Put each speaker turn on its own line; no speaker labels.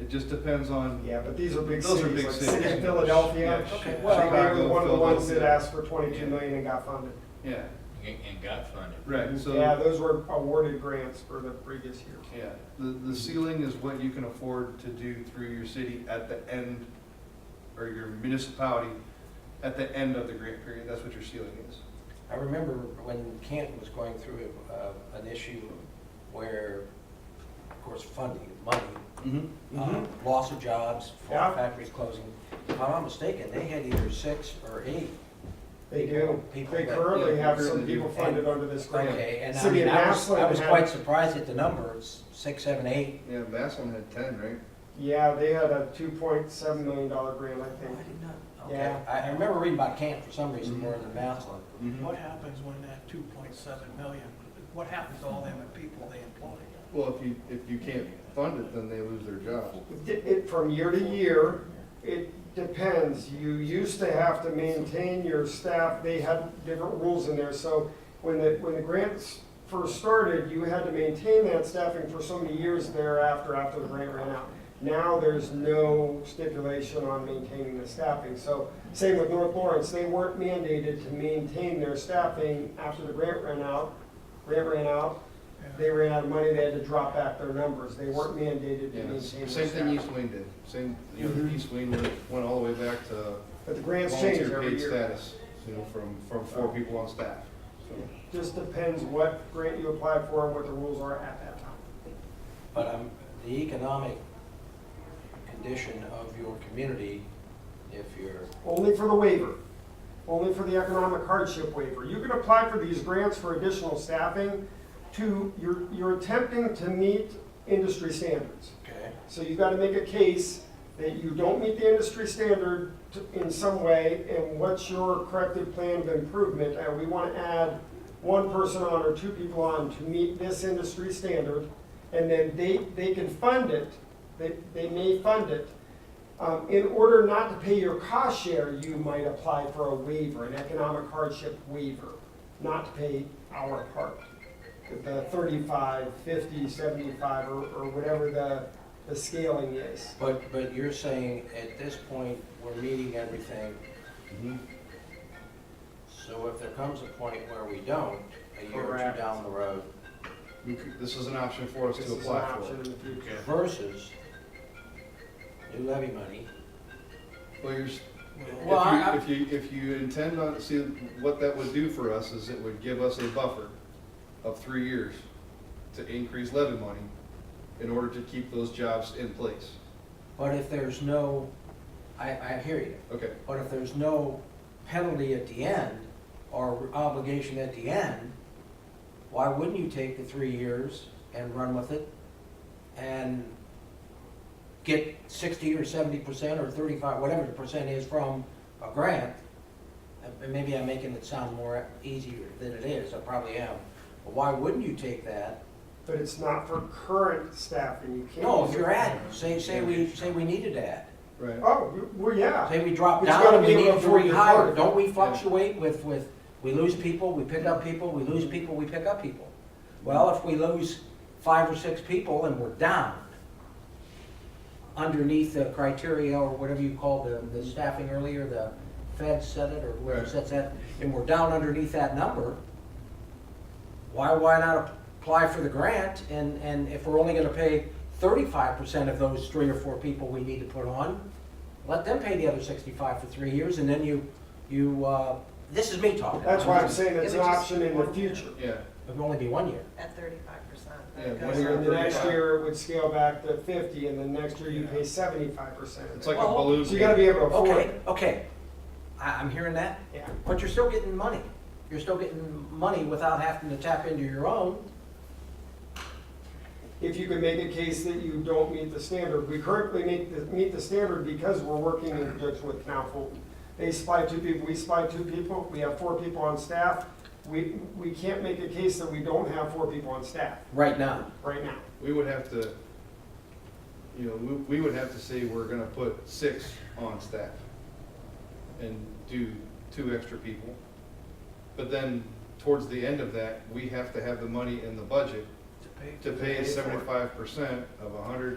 It just depends on.
Yeah, but these are big
Those
cities, like
big
the city of
cities.
Philadelphia.
Yeah,
Okay.
Well, they were
Chicago,
one of the ones that
Philadelphia.
asked for twenty-two million and got funded.
Yeah,
And and got funded.
right, so.
Yeah, those were awarded grants for the previous year.
Yeah, the, the ceiling is what you can afford to do through your city at the end, or your municipality, at the end of the grant period, that's what your ceiling is.
I remember when Kent was going through uh, an issue where, of course, funding, money,
Mm-hmm.
uh, loss of jobs,
Yeah.
factories closing. If I'm not mistaken, they had either six or eight.
They do.
People
They
that-
currently
yeah,
have
currently
some
do.
people funded under this grant.
Okay, and I
City
mean,
of
I was, I
Massillon
was
had-
quite surprised at the number, it's six, seven, eight.
Yeah, Maslin had ten, right?
Yeah, they had a two point seven million dollar grant, I think.
Okay,
Yeah. Mm-hmm.
I I remember reading about Kent for some reason more than Maslin.
What happens when that two point seven million, what happens to all them people they employ?
Well, if you, if you can't fund it, then they lose their job.
It, it, from year to year, it depends. You used to have to maintain your staff, they had different rules in there, so when the, when the grants first started, you had to maintain that staffing for so many years thereafter, after the grant ran out. Now, there's no stipulation on maintaining the staffing, so same with North Lawrence, they weren't mandated to maintain their staffing after the grant ran out. Grant ran out, they ran out of money, they had to drop back their numbers, they weren't mandated to
Yeah,
maintain their staffing.
same thing East Wayne did, same, you know,
Mhm.
East Wayne went, went all the way back to
But the grants change
volunteer
every
paid
year. Uh,
status, you know, from, from four people on staff. So,
Just depends what grant you apply for and what the rules are at that time.
But um, the economic condition of your community, if you're,
Only for the waiver, only for the economic hardship waiver. You can apply for these grants for additional staffing to, you're, you're attempting to meet industry standards.
okay,
So you've got to make a case that you don't meet the industry standard t- in some way, and what's your corrective plan of improvement? And we want to add one person on or two people on to meet this industry standard, and then they, they can fund it, they, they may fund it. Um, in order not to pay your cost share, you might apply for a waiver, an economic hardship waiver, not to pay our part. The 35, 50, 75, or, or whatever the, the scaling is.
but, but you're saying at this point, we're meeting everything.
mm-hmm.
So if there comes a point where we don't, a year or
Correct.
two down the road,
we could- This is an option for us
This
to
is an
apply for.
option in the future.
versus new levy money,
Well, you're, s-
Well, I-
If you, if you, if you intend on, see, what that would do for us is it would give us a buffer of three years to increase levy money in order to keep those jobs in place.
but if there's no, I, I hear you.
Okay,
But if there's no penalty at the end, or obligation at the end, why wouldn't you take the three years and run with it? And get sixty or seventy percent or thirty-five, whatever the percent is from a grant? And- And maybe I'm making it sound more easier than it is, I probably am. But why wouldn't you take that?
But it's not for current staffing, you can't.
No, if you're at, say, say we, say we needed that.
right.
Oh, you- well, yeah.
Say we drop
But you gotta
down, we
be able
need
to
to
afford your
rehire,
part.
don't we fluctuate with, with, we lose people, we pick up people, we lose people, we pick up people? Well, if we lose five or six people and we're down underneath the criteria or whatever you called the, the staffing earlier, the Fed said it or whoever
Right.
sets that, and we're down underneath that number, why, why not apply for the grant? And, and if we're only gonna pay thirty-five percent of those three or four people we need to put on, let them pay the other sixty-five for three years, and then you, you, uh, this is me talking.
That's why I'm saying it's
It
an
would just-
option in the future.
Yeah,
It'll only be one year.
At thirty-five percent.
Yeah,
And
One year,
then the next
35.
year it would scale back to fifty, and then next year you pay seventy-five percent.
it's
So
like a
Well,
balloon.
you gotta be able to afford
Okay,
it.
okay, I, I'm hearing that,
Yeah.
but you're still getting money. You're still getting money without having to tap into your own.
If you can make a case that you don't meet the standard, we currently meet the, meet the standard because we're working in conjunction with Canal Fulton. They supply two people, we supply two people, we have four people on staff. We, we can't make a case that we don't have four people on staff
Right now.
right now.
We would have to, you know, we, we would have to say we're gonna put six on staff and do two extra people. But then, towards the end of that, we have to have the money in the budget to pay
for it.
seventy-five percent of a hundred